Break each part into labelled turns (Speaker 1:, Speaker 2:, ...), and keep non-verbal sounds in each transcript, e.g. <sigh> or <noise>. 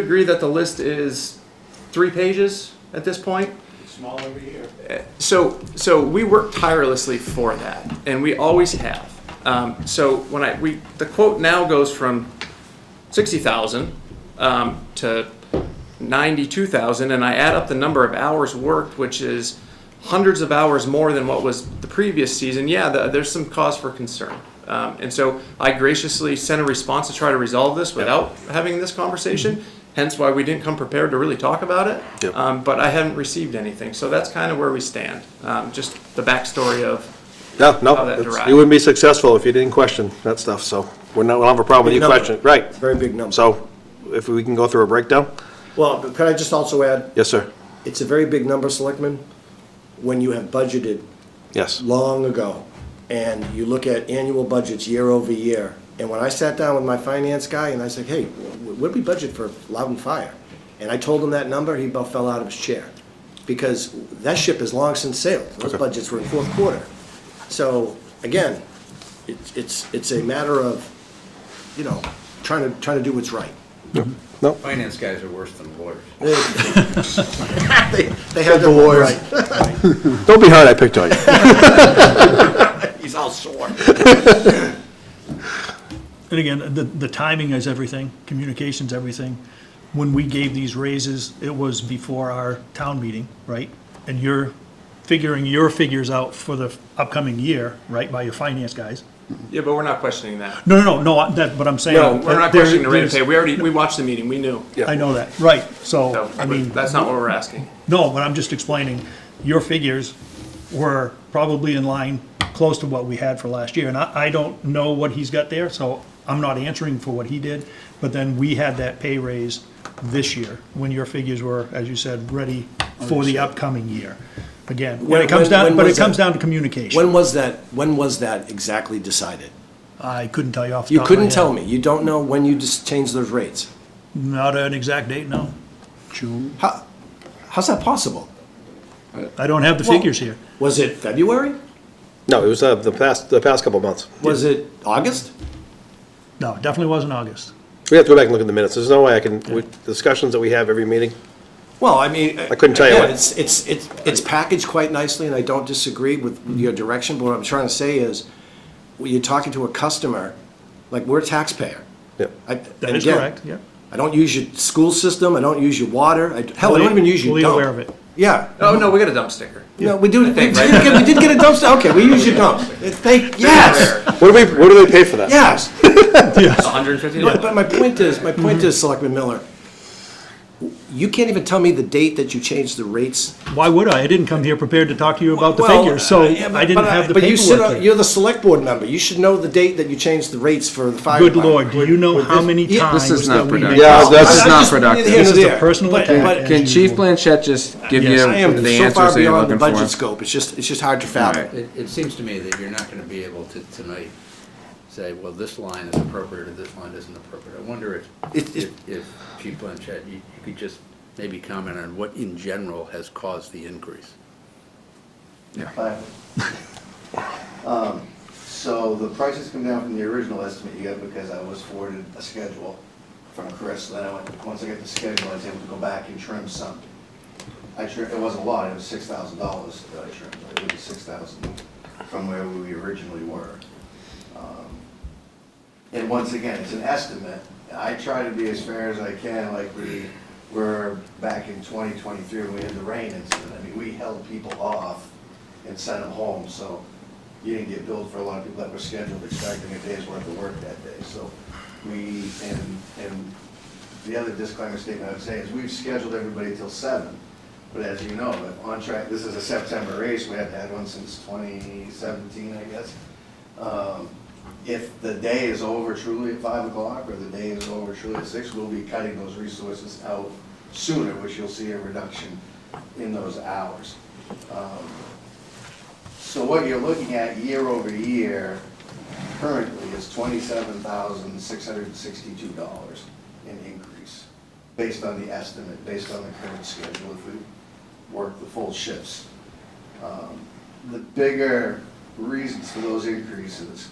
Speaker 1: agree that the list is three pages at this point.
Speaker 2: small every year.
Speaker 1: So, so we work tirelessly for that, and we always have. Um, so when I we the quote now goes from sixty thousand um, to ninety-two thousand, and I add up the number of hours worked, which is hundreds of hours more than what was the previous season. Yeah, the, there's some cause for concern, um, and so I graciously sent a response to try to resolve this without having this conversation. Hence, why we didn't come prepared to really talk about it.
Speaker 3: Yep.
Speaker 1: Um, but I haven't received anything, so that's kind of where we stand. Um, just the backstory of
Speaker 3: No,
Speaker 1: How
Speaker 3: no,
Speaker 1: that
Speaker 3: it's-
Speaker 1: derived.
Speaker 3: you wouldn't be successful if you didn't question that stuff, so we're not, we'll have a problem with
Speaker 4: Big
Speaker 3: you
Speaker 4: number.
Speaker 3: questioning, right.
Speaker 4: Very big number.
Speaker 3: So if we can go through a breakdown?
Speaker 4: Well, but could I just also add,
Speaker 3: Yes, sir.
Speaker 4: it's a very big number, Selectmen, when you have budgeted
Speaker 3: Yes.
Speaker 4: long ago, and you look at annual budgets year over year. And when I sat down with my finance guy, and I said, hey, wh- what did we budget for Loudon Fire? And I told him that number, he about fell out of his chair, because that ship has long since sailed. Those
Speaker 3: Okay.
Speaker 4: budgets were in fourth quarter. So, again, it's, it's, it's a matter of, you know, trying to, trying to do what's right.
Speaker 5: Finance guys are worse than lawyers.
Speaker 4: They they have their own right.
Speaker 3: Don't be hard, I picked on you.
Speaker 4: He's all sore.
Speaker 6: And again, the, the timing is everything, communication's everything. When we gave these raises, it was before our town meeting, right? And you're figuring your figures out for the upcoming year, right, by your finance guys?
Speaker 1: yeah, but we're not questioning that.
Speaker 6: No, no, no, no, I- that, but I'm saying.
Speaker 1: No, we're not
Speaker 6: there-
Speaker 1: questioning the rate of
Speaker 6: there's-
Speaker 1: pay. We already we watched the meeting. We knew.
Speaker 6: I know that, right, so,
Speaker 1: So
Speaker 6: I mean,
Speaker 1: that's not what we're asking.
Speaker 6: no, but I'm just explaining, your figures were probably in line close to what we had for last year, and I, I don't know what he's got there, so I'm not answering for what he did, but then we had that pay raise this year, when your figures were, as you said, ready for the upcoming year. Again, when
Speaker 4: When-
Speaker 6: it comes
Speaker 4: when- when
Speaker 6: down, but it
Speaker 4: was that?
Speaker 6: comes down to
Speaker 4: When
Speaker 6: communication.
Speaker 4: was that, when was that exactly decided?
Speaker 6: I couldn't tell you off the
Speaker 4: You
Speaker 6: top of my
Speaker 4: couldn't tell
Speaker 6: head.
Speaker 4: me, you don't know when you just changed those rates.
Speaker 6: Not an exact date, no. June.
Speaker 4: How, how's that possible?
Speaker 6: I don't have the figures here.
Speaker 4: Was it February?
Speaker 3: <laughs> No, it was uh, the past, the past couple of months.
Speaker 4: Was it August?
Speaker 6: No, it definitely wasn't August.
Speaker 3: We have to go back and look at the minutes. There's no way I can, with discussions that we have every meeting,
Speaker 4: Well, I mean. I
Speaker 3: couldn't tell you what.
Speaker 4: It's, it's, it's, it's packaged quite nicely, and I don't disagree with your direction, but what I'm trying to say is, when you're talking to a customer, like, we're a taxpayer.
Speaker 3: yeah.
Speaker 4: I-
Speaker 6: That
Speaker 4: and
Speaker 6: is
Speaker 4: again,
Speaker 6: correct, yeah.
Speaker 4: I don't use your school system, I don't use your water, I, hell, I don't even use your
Speaker 6: Fully
Speaker 4: dump.
Speaker 6: aware of it.
Speaker 4: Yeah,
Speaker 1: Oh no, we got a dump sticker.
Speaker 4: No, we do, we did
Speaker 1: think,
Speaker 4: get, we did get a dumpster, okay, we use your dump. Thank, yes,
Speaker 1: There,
Speaker 3: What do we, what do they pay for that?
Speaker 4: yes.
Speaker 1: it's 150.
Speaker 4: But, but my point is, my point is, Selectman Miller, you can't even tell me the date that you changed the rates.
Speaker 6: Why would I? I didn't come here prepared to talk to you about the
Speaker 4: Well,
Speaker 6: figures, so
Speaker 4: uh, yeah, but-
Speaker 6: I didn't
Speaker 4: but
Speaker 6: have the
Speaker 4: But you sit, on-
Speaker 6: paperwork here.
Speaker 4: you're the select board member, you should know the date that you changed the rates for the fire
Speaker 6: Good
Speaker 4: department.
Speaker 6: lord, do you know how many
Speaker 4: Yeah,
Speaker 6: times
Speaker 4: this
Speaker 7: is
Speaker 6: that
Speaker 7: not
Speaker 6: we
Speaker 7: productive.
Speaker 6: make?
Speaker 3: Yeah, that's,
Speaker 4: I-
Speaker 7: This is
Speaker 4: I
Speaker 7: not
Speaker 4: just-
Speaker 7: productive.
Speaker 4: neither here
Speaker 6: This
Speaker 4: nor
Speaker 6: is a
Speaker 4: there.
Speaker 6: personal
Speaker 4: But-
Speaker 6: attack.
Speaker 4: but-
Speaker 6: as
Speaker 7: Can Chief
Speaker 6: usual.
Speaker 7: Blanchett just give you
Speaker 6: Yes,
Speaker 4: I am
Speaker 7: the
Speaker 4: so far
Speaker 7: answers that you're
Speaker 4: beyond the
Speaker 7: looking
Speaker 4: budget
Speaker 7: for?
Speaker 4: scope, it's just, it's just hard to fathom.
Speaker 7: All
Speaker 5: It, it seems to me that you're not gonna be able to tonight say, well, this line is appropriate or this line isn't appropriate. I wonder if,
Speaker 4: It- it-
Speaker 5: if, if Chief Blanchett, you, you could just maybe comment on what in general has caused the increase.
Speaker 8: Hi. Um, So the prices come down from the original estimate you got because I was forwarded a schedule from Chris. Then I went, once I got the schedule, I was able to go back and trim some. I trimmed, it wasn't a lot, it was six thousand dollars that I trimmed, it would be six thousand from where we originally were. Um, And once again, it's an estimate. I try to be as fair as I can, like we were back in 2023 when we had the rain incident. I mean, we held people off and sent them home, so you didn't get billed for a lot of people that were scheduled expecting a day's worth of work that day. So we, and, and the other disclaimer statement I would say is we've scheduled everybody till seven. But as you know, if on track, this is a September race, we haven't had one since 2017, I guess. Um, If the day is over truly at five o'clock, or the day is over truly at six, we'll be cutting those resources out sooner, which you'll see a reduction in those hours. Um, So what you're looking at year over year currently is twenty-seven thousand, six hundred and sixty-two dollars in increase, based on the estimate, based on the current schedule, if we work the full shifts. Um, The bigger reasons for those increases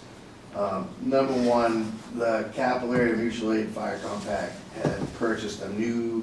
Speaker 8: Um, Number one, the Capillary Mutual Aid Fire Compact had purchased a new